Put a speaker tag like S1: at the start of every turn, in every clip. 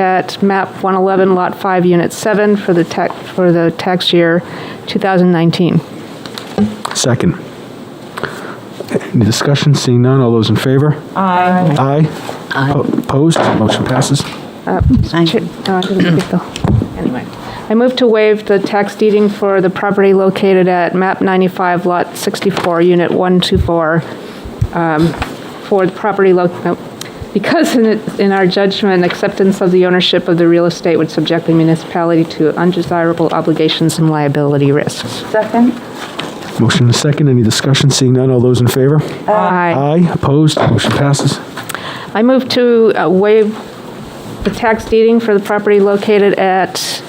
S1: at map 111, lot 5, unit 7 for the tax, for the tax year 2019.
S2: Second. Any discussion? Seeing none, all those in favor?
S3: Aye.
S2: Aye. Opposed? Motion passes.
S1: Ch- no, I didn't get the- Anyway, I move to waive the tax deeding for the property located at map 95, lot 64, unit 124, um, for the property, lo- no, because in it- in our judgment, acceptance of the ownership of the real estate would subject the municipality to undesirable obligations and liability risks.
S3: Second?
S2: Motion and second. Any discussion? Seeing none, all those in favor?
S1: Aye.
S2: Aye. Opposed? Motion passes.
S1: I move to uh, waive the tax deeding for the property located at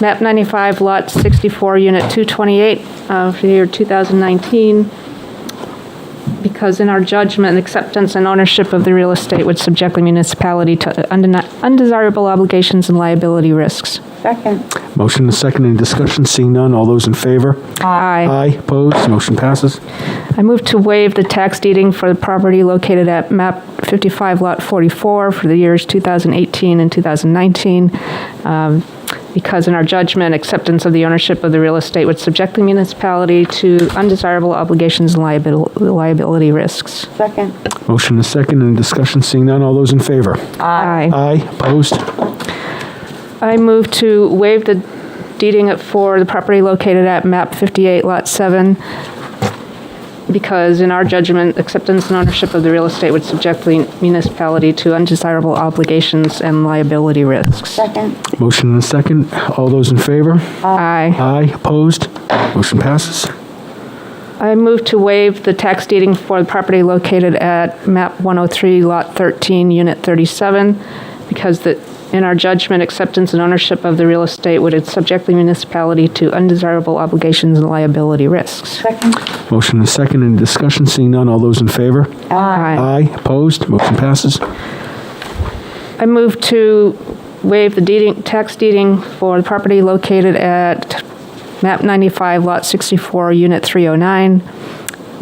S1: map 95, lot 64, unit 228, uh, for the year 2019, because in our judgment, acceptance and ownership of the real estate would subject the municipality to undeni- undesirable obligations and liability risks.
S3: Second.
S2: Motion and second. Any discussion? Seeing none, all those in favor?
S1: Aye.
S2: Aye. Opposed? Motion passes.
S1: I move to waive the tax deeding for the property located at map 55, lot 44, for the years 2018 and 2019, um, because in our judgment, acceptance of the ownership of the real estate would subject the municipality to undesirable obligations and liabil- liability risks.
S3: Second.
S2: Motion and second. Any discussion? Seeing none, all those in favor?
S1: Aye.
S2: Aye. Opposed?
S1: I move to waive the deeding it for the property located at map 58, lot 7, because in our judgment, acceptance and ownership of the real estate would subject the municipality to undesirable obligations and liability risks.
S3: Second.
S2: Motion and second. All those in favor?
S1: Aye.
S2: Aye. Opposed? Motion passes.
S1: I move to waive the tax deeding for the property located at map 103, lot 13, unit 37, because the, in our judgment, acceptance and ownership of the real estate would subject the municipality to undesirable obligations and liability risks.
S3: Second.
S2: Motion and second. Any discussion? Seeing none, all those in favor?
S1: Uh,
S2: Aye. Opposed? Motion passes.
S1: I move to waive the deeding, tax deeding for the property located at map 95, lot 64, unit 309,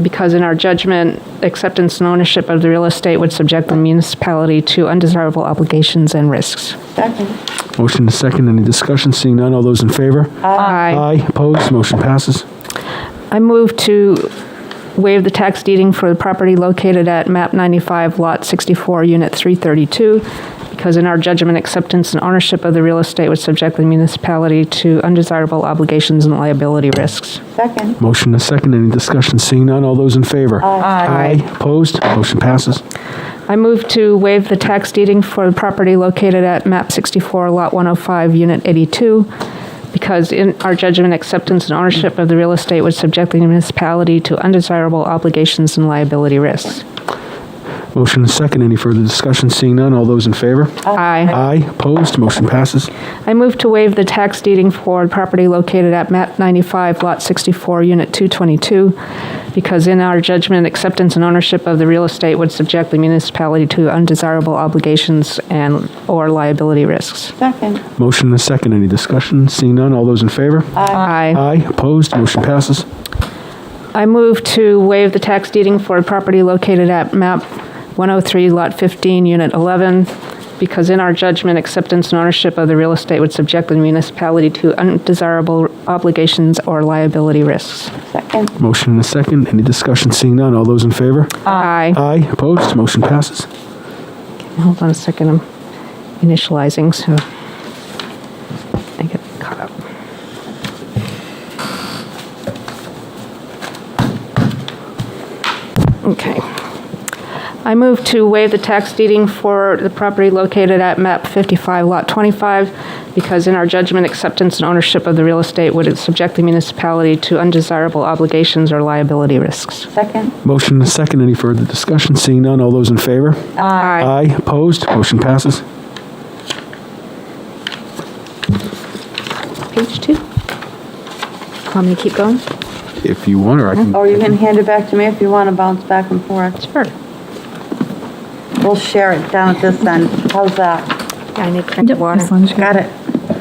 S1: because in our judgment, acceptance and ownership of the real estate would subject the municipality to undesirable obligations and risks.
S3: Second.
S2: Motion is second. Any discussion? Seeing none, all those in favor?
S1: Aye.
S2: Opposed? Motion passes.
S1: I move to waive the tax deeding for the property located at map 95, lot 64, unit 332, because in our judgment, acceptance and ownership of the real estate would subject the municipality to undesirable obligations and liability risks.
S3: Second.
S2: Motion is second. Any discussion? Seeing none, all those in favor?
S1: Aye.
S2: Opposed? Motion passes.
S1: I move to waive the tax deeding for the property located at map 64, lot 105, unit 82, because in our judgment, acceptance and ownership of the real estate would subject the municipality to undesirable obligations and liability risks.
S2: Motion is second. Any further discussion? Seeing none, all those in favor?
S1: Aye.
S2: Aye. Opposed? Motion passes.
S1: I move to waive the tax deeding for property located at map 95, lot 64, unit 222, because in our judgment, acceptance and ownership of the real estate would subject the municipality to undesirable obligations and/or liability risks.
S3: Second.
S2: Motion is second. Any discussion? Seeing none, all those in favor?
S1: Aye.
S2: Aye. Opposed? Motion passes.
S1: I move to waive the tax deeding for property located at map 103, lot 15, unit 11, because in our judgment, acceptance and ownership of the real estate would subject the municipality to undesirable obligations or liability risks.
S3: Second.
S2: Motion is second. Any discussion? Seeing none, all those in favor?
S1: Aye.
S2: Aye. Opposed? Motion passes.
S1: Hold on a second, I'm initializing, so I get caught up. Okay. I move to waive the tax deeding for the property located at MAP 55, Lot 25, because in our judgment, acceptance and ownership of the real estate would subject the municipality to undesirable obligations or liability risks.
S3: Second.
S2: Motion and second. Any further discussion? Seeing none, all those in favor?
S1: Aye.
S2: Aye. Opposed? Motion passes.
S1: Page two. Want me to keep going?
S2: If you want, or I can.
S3: Or you can hand it back to me if you want to bounce back and forth.
S1: Sure.
S3: We'll share it down at this end. How's that?
S1: I need to drink water.
S3: Got it.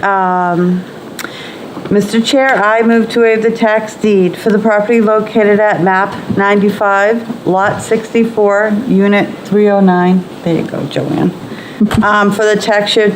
S3: Um, Mr. Chair, I move to waive the tax deed for the property located at map 95, lot oh 64, unit 309. There you go, Joanne. Um, For the tax year